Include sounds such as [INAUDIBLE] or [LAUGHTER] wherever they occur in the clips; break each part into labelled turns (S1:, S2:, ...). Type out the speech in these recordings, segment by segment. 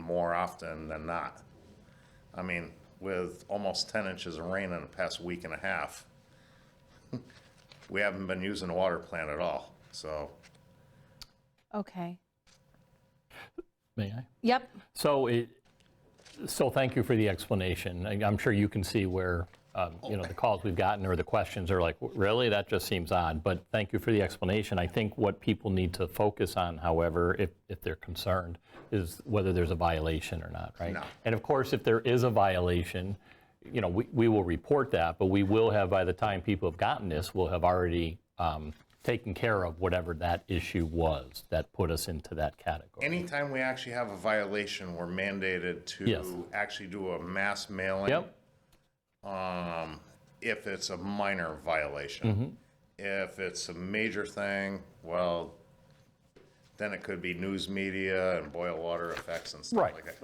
S1: more often than not. I mean, with almost ten inches of rain in the past week and a half, [LAUGHS] we haven't been using the water plant at all, so.
S2: Okay.
S3: May I?
S2: Yep.
S3: So it, so thank you for the explanation. I- I'm sure you can see where, um, you know, the calls we've gotten or the questions are like, really? That just seems odd. But thank you for the explanation. I think what people need to focus on, however, if, if they're concerned, is whether there's a violation or not, right?
S1: No.
S3: And of course, if there is a violation, you know, we, we will report that, but we will have, by the time people have gotten this, we'll have already um, taken care of whatever that issue was that put us into that category.
S1: Anytime we actually have a violation, we're mandated
S3: Yes.
S1: to actually do a mass mailing.
S3: Yep,
S1: um, if it's a minor
S3: Mm-hmm.
S1: violation. If it's a major thing, well, then it could be news media and boil water effects and stuff
S3: Right.
S1: like that.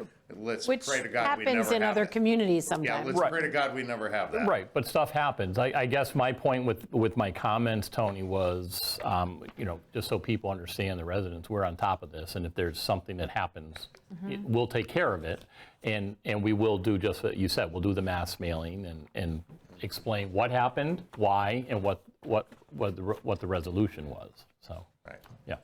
S1: Let's
S2: Which
S1: pray to God we never
S2: happens in
S1: have
S2: other
S1: that.
S2: communities
S1: Yeah,
S2: sometimes.
S1: let's pray to God we never have that.
S3: Right, but stuff happens. I, I guess my point with, with my comments, Tony, was, um, you know, just so people understand, the residents, we're on top of this, and if there's something that happens, it- we'll take care of it, and, and we will do just what you said, we'll do the mass mailing and, and explain what happened, why, and what, what, what the, re- what the resolution was, so,
S1: Right.
S3: yeah.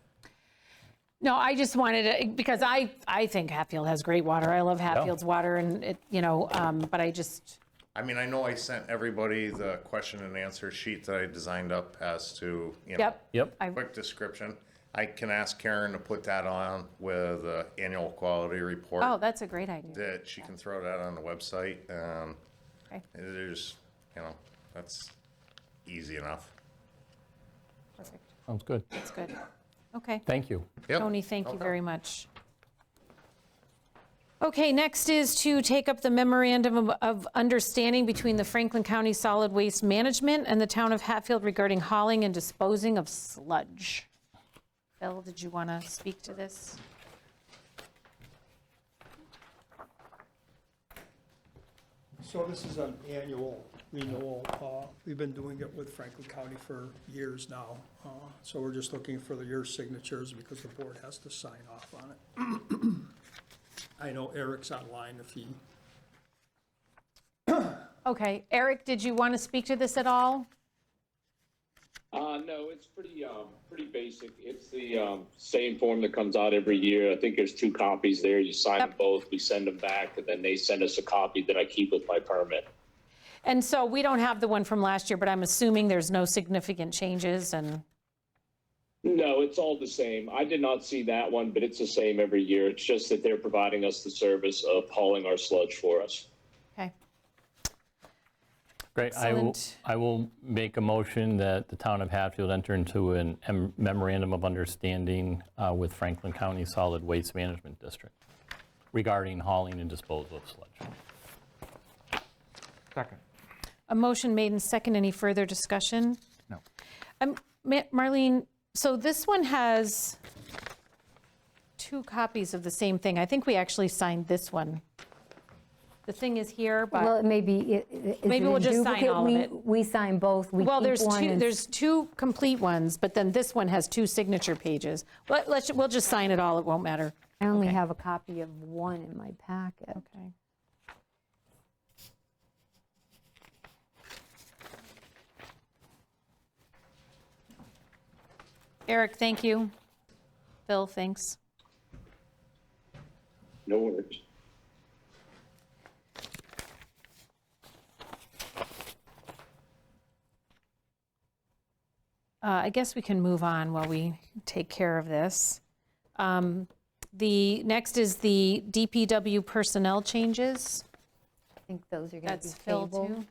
S2: No, I just wanted to, because I, I think Hatfield has great water. I love Hatfield's water and it, you know, um, but I just,
S1: I mean, I know I sent everybody the question and answer sheet that I designed up as to, you know,
S2: yep.
S3: Yep,
S2: I-
S1: quick description. I can ask Karen to put that on with the annual quality report.
S2: Oh, that's a great idea.
S1: that she can throw that on the website, um,
S2: Okay.
S1: there's, you know, that's easy enough.
S2: Perfect.
S3: sounds good.
S2: That's good. Okay.
S3: Thank you.
S1: Yep.
S2: Tony, thank you very much. Okay, next is to take up the memorandum of- of understanding between the Franklin County Solid Waste Management and the town of Hatfield regarding hauling and disposing of sludge. Phil, did you want to speak to this?
S4: So this is an annual renewal. Uh, We've been doing it with Franklin County for years now. Uh, So we're just looking for the your signatures because the board has to sign off on it. [CLEARS THROAT] I know Eric's online if he,
S2: Okay, Eric, did you want to speak to this at all?
S5: Uh, no, it's pretty, um, pretty basic. It's the, um, same form that comes out every year. I think there's two copies there. You sign them
S2: Yep.
S5: both, we send them back, and then they send us a copy that I keep with my permit.
S2: And so we don't have the one from last year, but I'm assuming there's no significant changes and,
S5: No, it's all the same. I did not see that one, but it's the same every year. It's just that they're providing us the service of hauling our sludge for us.
S2: okay.
S3: Great, I will,
S2: Excellent.
S3: I will make a motion that the town of Hatfield enter into an em- memorandum of understanding uh, with Franklin County Solid Waste Management District regarding hauling and disposal of sludge.
S6: Second.
S2: A motion made and second. Any further discussion?
S6: No.
S2: Um, Ma- Marlene, so this one has two copies of the same thing. I think we actually signed this one. The thing is here,
S7: Well,
S2: but,
S7: it may be. i- i- is
S2: Maybe
S7: it
S2: we'll
S7: in
S2: just sign
S7: duplicate?
S2: all of
S7: We-
S2: it.
S7: We sign both. We
S2: well,
S7: keep
S2: there's
S7: one
S2: two,
S7: and-
S2: there's two complete ones, but then this one has two signature pages. Let- Let's, we'll just sign it all, it won't matter.
S7: I only have a copy of one in my packet.
S2: Okay. Eric, thank you. Phil, thanks.
S5: No worries.
S2: Uh, I guess we can move on while we take care of this. Um, The, next is the DPW personnel changes.
S7: I think those are going to be
S2: That's Phil,
S7: tabled.
S2: too.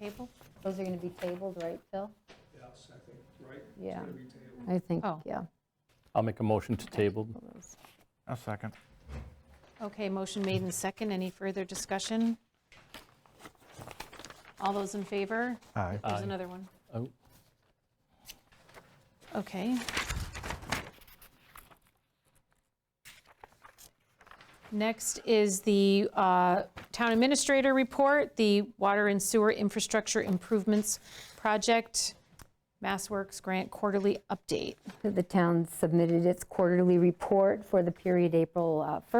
S2: Table?
S7: Those are going to be tabled, right, Phil?
S4: yes, I think, right?
S7: Yeah. I think,
S2: Oh.
S7: yeah.
S3: I'll make a motion to table.
S6: A second.
S2: Okay, motion made and second. Any further discussion? All those in favor?
S6: Aye.
S2: There's another one.
S3: Oh,
S2: Okay. Next is the uh, Town Administrator Report, the Water and Sewer Infrastructure Improvements Project, MassWorks Grant Quarterly Update.
S7: The town submitted its quarterly report for the period April uh,